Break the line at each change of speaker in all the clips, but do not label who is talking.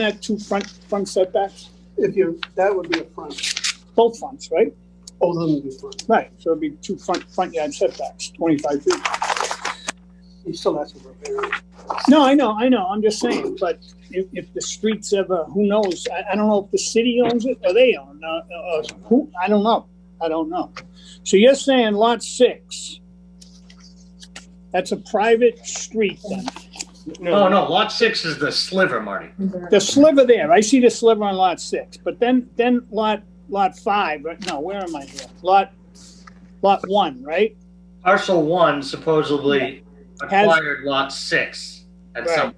that two front, front setbacks?
If you, that would be a front, Oh,
Both fronts, right?
both of them would be front.
Right, so it'd be two front, front yard setbacks, twenty-five feet.
He still has to repair it.
No, I know, I know, I'm just saying, but if, if the streets ever, who knows, I, I don't know if the city owns it or they own, uh, uh, who, I don't know, I don't know. So you're saying lot six, that's a private street then?
No, Oh, no, lot six is the sliver, Marty.
The sliver there, I see the sliver on lot six, but then, then lot, lot five, right, no, where am I here? Lot, lot one, right?
Parcel one supposedly
Has-
acquired lot six at some,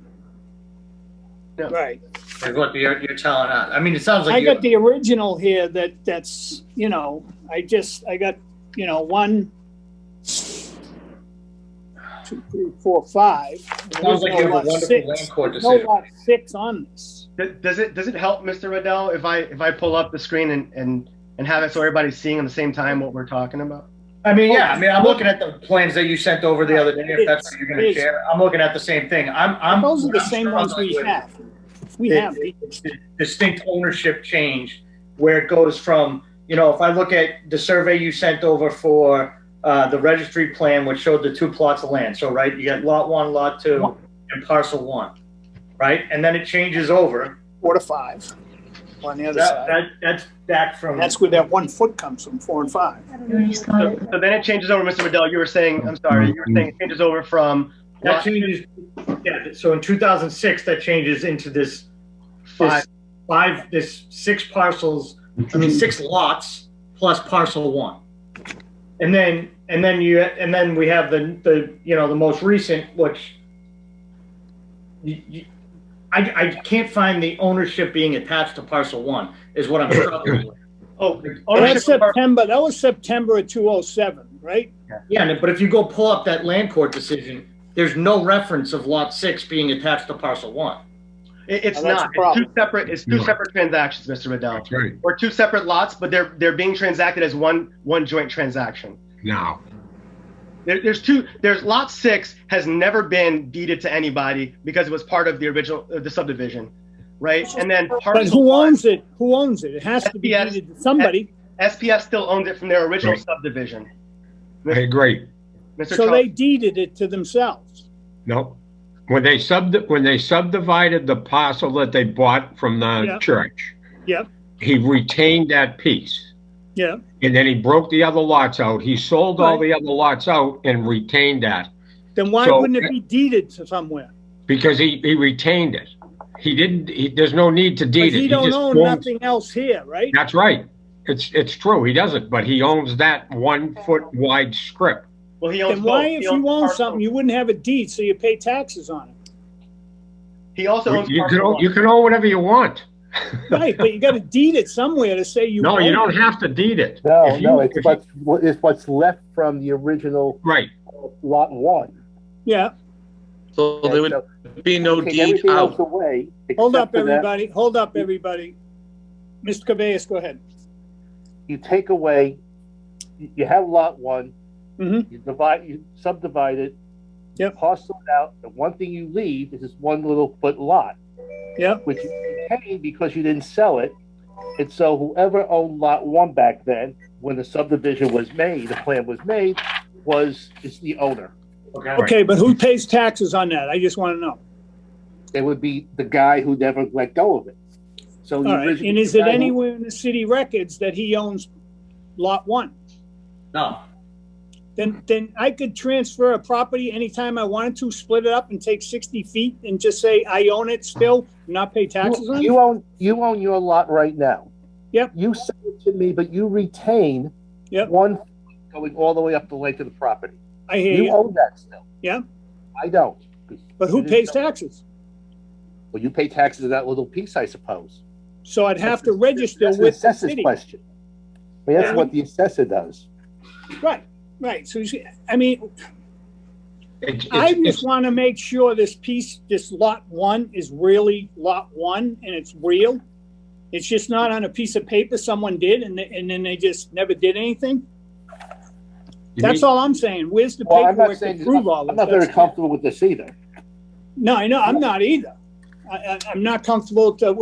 Right.
is what you're, you're telling us. I mean, it sounds
I
like
got
you,
the original here that, that's, you know, I just, I got, you know, one, two, three, four, five.
sounds like you
Original
have a
lot
wonderful
six.
land court
There's No
decision.
lot six on this.
Th- Does it does it help, Mr. Riddell, if I if I pull up the screen and and and have it so everybody's seeing at the same time what we're talking about?
I mean, yeah, I mean, I'm looking at the plans that you sent over the other day, if that's what you're
It
gonna
is.
share. I'm looking at the same thing. I'm, I'm.
Those are the
I'm
same ones we
struggling with
have. We
it-
have these.
Distinct ownership change where it goes from, you know, if I look at the survey you sent over for, uh, the registry plan, which showed the two plots of land. So, right, you got lot one, lot two, and parcel one, right? And then it changes over.
four to five on the other
That,
side.
that, that's back from.
That's where that one foot comes from, four and five.
So, so then it changes over, Mr. Riddell. You were saying, I'm sorry, you were saying it changes over from
That
lot
changes, yeah, so in two thousand six, that changes into this
five.
this five, this six parcels, I mean, six lots plus parcel one. And then, and then you, and then we have the, the, you know, the most recent, which you, you, I, I can't find the ownership being attached to parcel one is what I'm struggling with.
Oh,
Oh,
ownership
that's
of our-
September, that was September of two oh seven, right?
Yeah, and- but if you go pull up that land court decision, there's no reference of lot six being attached to parcel one.
it- it's
Oh, that's
not.
a
It's
problem.
two separate. It's two
No.
separate transactions, Mr. Riddell,
That's right,
or two separate lots, but they're they're being transacted as one one joint transaction.
now.
There, there's two. There's lot six has never been deeded to anybody because it was part of the original uh, the subdivision, right? And then
But
parcel
who
one,
owns it? Who owns it? It has to be
Yes.
deeded to somebody.
SPS still owns it from their original
Right.
subdivision.
I agree.
Mr.
So
Charles,
they deeded it to themselves.
No. When they sub, when they subdivided the parcel that they bought from the
Yeah.
church.
Yep.
He retained that piece
Yeah,
and then he broke the other lots out. He sold all
Right.
the other lots out and retained that
then why
So-
wouldn't it be deeded to somewhere?
because he, he retained it. He didn't, he, there's no need to
But
deed it.
he don't
just
own
owns-
nothing else here, right?
That's right. It's, it's true. He doesn't, but he owns that one foot wide strip.
well, he owns
Then
both.
why,
He
if
owns
you own
parcel-
something, you wouldn't have a deed, so you pay taxes on it?
he also owns
You can,
parcel
own-
one.
you can own whatever you want.
Right, but you gotta deed it somewhere to say you
No,
own
you
it.
don't have to deed it.
No,
If you-
no, it's
if you-
what's, what- it's what's left from the original
Right.
lot one.
Yeah,
So there would
So
be no
take
deed
everything else
out.
away.
hold
except
up,
for that
everybody, hold up, everybody. Mr. Cabeas, go ahead.
You take away, you you have lot one.
Mhm.
You divide, you subdivide it.
Yep.
Parcel it out. The one thing you leave is this one little foot lot.
Yep.
Which you retained because you didn't sell it. And so whoever owned lot one back then, when the subdivision was made, the plan was made, was, is the owner.
Okay, but who pays taxes on that? I just wanna know.
It would be the guy who never let go of it. So. you
All right,
originally-
and is it anywhere in the city records that he owns lot one?
No.
Then, then I could transfer a property anytime I wanted to, split it up and take sixty feet and just say I own it still, not pay taxes
You-
on it?
You own, you own your lot right now.
Yep.
You sell it to me, but you retain
Yep.
one foot going all the way up the length of the property.
I hear
You
you,
own that still.
Yeah.
I don't.
but who
you just
pays
don't-
taxes?
Well, you pay taxes on that little piece, I suppose.
So I'd have to register
That's an
with the
assessor's
city.
Question. I mean,
Yeah.
that's what the assessor does.
Right, right, so you see, I mean,
It's- it's-
I just
it's-
wanna make sure this piece, this lot one is really lot one and it's real. It's just not on a piece of paper someone did and, they- and then they just never did anything.
you
That's
need-
all I'm saying. Where's the
Well, I'm not
paperwork to
saying,
prove all
I'm
of
not very
this?
comfortable with this either.
No, I know, I'm not either. I, I, I'm not comfortable to,